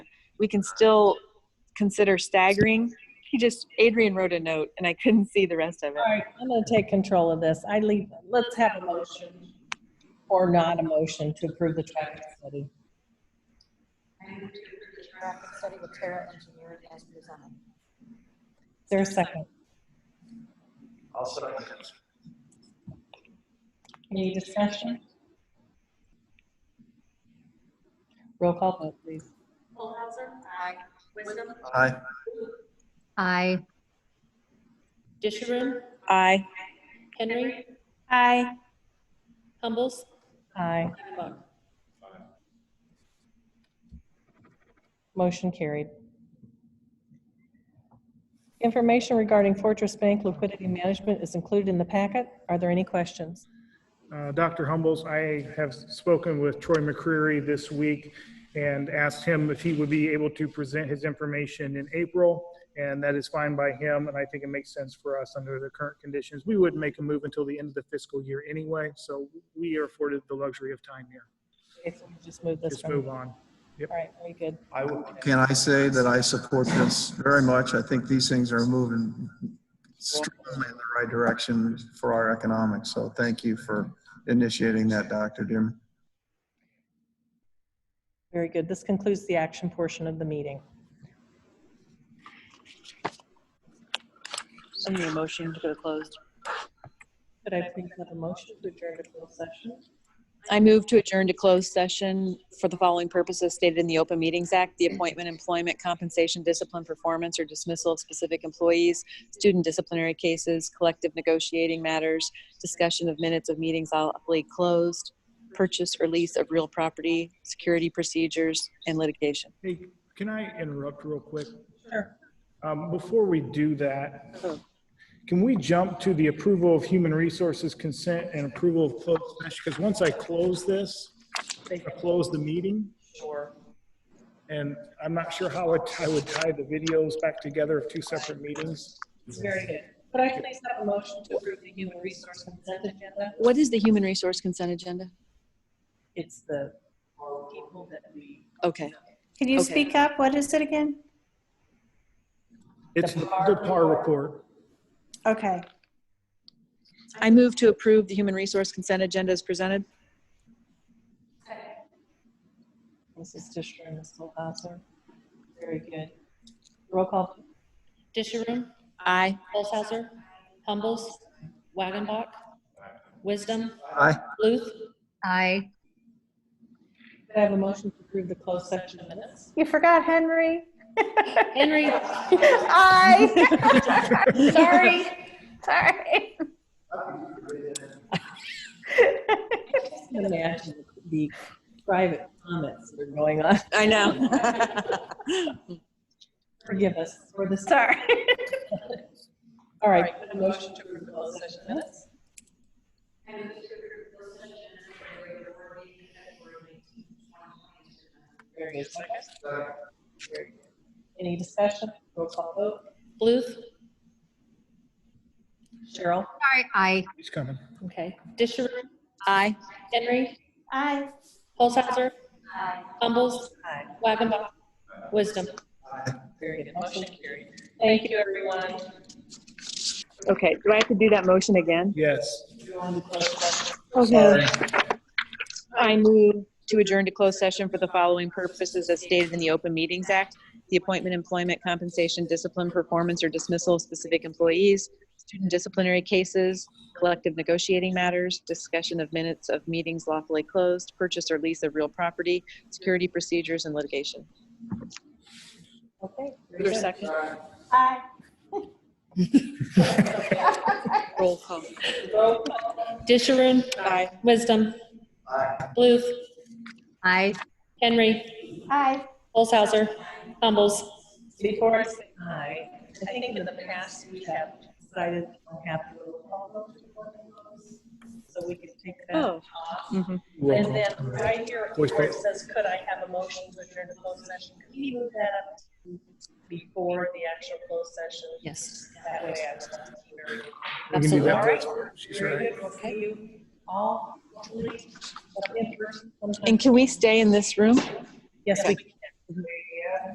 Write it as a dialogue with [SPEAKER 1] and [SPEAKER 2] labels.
[SPEAKER 1] we can still consider staggering. He just, Adrian wrote a note and I couldn't see the rest of it.
[SPEAKER 2] All right, I'm going to take control of this. I leave, let's have a motion or not a motion to approve the traffic study.
[SPEAKER 3] traffic study with Terra Engineering as presented.
[SPEAKER 2] Is there a second?
[SPEAKER 4] I'll second.
[SPEAKER 2] Any discussion? Roll call vote, please.
[SPEAKER 3] Aye.
[SPEAKER 4] Aye.
[SPEAKER 5] Aye.
[SPEAKER 6] Disharum,
[SPEAKER 1] Aye.
[SPEAKER 6] Henry,
[SPEAKER 1] Aye.
[SPEAKER 6] Humbles,
[SPEAKER 2] Aye.
[SPEAKER 6] Buck.
[SPEAKER 2] Motion carried. Information regarding Fortress Bank liquidity management is included in the packet. Are there any questions?
[SPEAKER 7] Uh, Dr. Humbles, I have spoken with Troy McCreary this week and asked him if he would be able to present his information in April, and that is fine by him, and I think it makes sense for us under the current conditions. We wouldn't make a move until the end of the fiscal year anyway, so we are afforded the luxury of time here.
[SPEAKER 2] Okay, so we Just move this
[SPEAKER 7] Just
[SPEAKER 2] from.
[SPEAKER 7] move on.
[SPEAKER 2] All right, very good.
[SPEAKER 4] I would.
[SPEAKER 8] Can I say that I support this very much? I think these things are moving strongly in the right direction for our economics. So thank you for initiating that, Dr. Dim.
[SPEAKER 2] Very good. This concludes the action portion of the meeting.
[SPEAKER 1] I need a motion to go closed.
[SPEAKER 2] Could I please have a motion to adjourn to closed session?
[SPEAKER 1] I move to adjourn to closed session for the following purposes stated in the Open Meetings Act, the appointment, employment, compensation, discipline, performance, or dismissal of specific employees, student disciplinary cases, collective negotiating matters, discussion of minutes of meetings lawfully closed, purchase or lease of real property, security procedures, and litigation.
[SPEAKER 7] Hey, can I interrupt real quick?
[SPEAKER 2] Sure.
[SPEAKER 7] Um, Before we do that, can we jump to the approval of human resources consent and approval of closed session? Because once I close this, I close the meeting,
[SPEAKER 2] Sure.
[SPEAKER 7] and I'm not sure how it- I would tie the videos back together of two separate meetings.
[SPEAKER 2] Very good. Could I please have a motion to approve the human resource consent agenda?
[SPEAKER 1] What is the human resource consent agenda?
[SPEAKER 2] It's the people that we.
[SPEAKER 1] Okay.
[SPEAKER 9] Could you
[SPEAKER 1] Okay.
[SPEAKER 9] speak up? What is it again?
[SPEAKER 7] It's the PAR report.
[SPEAKER 9] Okay.
[SPEAKER 1] I move to approve the human resource consent agenda as presented.
[SPEAKER 2] Mrs. Disher and Ms. Holthauser. Very good. Roll call.
[SPEAKER 6] Disharum,
[SPEAKER 1] Aye.
[SPEAKER 6] Olshauser, Humbles, Wagonbach, Wisdom,
[SPEAKER 8] Aye.
[SPEAKER 6] Luth,
[SPEAKER 5] Aye.
[SPEAKER 2] Could I have a motion to approve the closed session minutes?
[SPEAKER 9] You forgot Henry.
[SPEAKER 6] Henry,
[SPEAKER 9] I. Sorry. Sorry.
[SPEAKER 2] I can imagine the private comments that are going on.
[SPEAKER 1] I know.
[SPEAKER 2] Forgive us for the.
[SPEAKER 9] Sorry.
[SPEAKER 2] All right. could I have A motion to approve the closed session minutes? Very good. Second? Very good. Any discussion? Roll call vote.
[SPEAKER 6] Bluth,
[SPEAKER 5] Sorry,
[SPEAKER 2] Cheryl?
[SPEAKER 5] aye.
[SPEAKER 7] He's coming.
[SPEAKER 6] okay, Disharum,
[SPEAKER 1] Aye.
[SPEAKER 6] Henry,
[SPEAKER 9] I.
[SPEAKER 6] Olshauser, Humbles,
[SPEAKER 2] Aye.
[SPEAKER 6] Wagonbach, Wisdom.
[SPEAKER 2] Very good. Motion carried. Thank you, everyone.
[SPEAKER 1] Okay, do I have to do that motion again?
[SPEAKER 7] Yes.
[SPEAKER 1] Okay. I move to adjourn to closed session for the following purposes as stated in the Open Meetings Act. The appointment, employment, compensation, discipline, performance, or dismissal of specific employees, student disciplinary cases, collective negotiating matters, discussion of minutes of meetings lawfully closed, purchase or lease of real property, security procedures, and litigation.
[SPEAKER 2] Okay. very
[SPEAKER 1] Is there a second?
[SPEAKER 2] good.
[SPEAKER 9] I.
[SPEAKER 1] Roll call.
[SPEAKER 2] Roll call.
[SPEAKER 6] Disharum,
[SPEAKER 1] Aye.
[SPEAKER 6] Wisdom, Bluth,
[SPEAKER 5] Aye.
[SPEAKER 6] Henry,
[SPEAKER 9] I.
[SPEAKER 6] Olshauser, Humbles,
[SPEAKER 2] Before I say aye, I think in the past we have decided we don't have to roll call vote before the votes. So we can take that
[SPEAKER 1] Oh.
[SPEAKER 2] off.
[SPEAKER 1] Mhm.
[SPEAKER 7] Roll
[SPEAKER 2] And
[SPEAKER 7] call.
[SPEAKER 2] then right here
[SPEAKER 7] Voice
[SPEAKER 2] where it
[SPEAKER 7] vote.
[SPEAKER 2] says, could I have a motion to adjourn to closed session? Can we move that up to before the actual closed session?
[SPEAKER 6] yes.
[SPEAKER 2] That way I will be very
[SPEAKER 7] We can do
[SPEAKER 2] All
[SPEAKER 7] that.
[SPEAKER 2] right.
[SPEAKER 7] She's
[SPEAKER 2] Very
[SPEAKER 7] right.
[SPEAKER 2] good. We'll see you all hopefully in person sometime.
[SPEAKER 1] And can we stay in this room?
[SPEAKER 2] Yes, we can.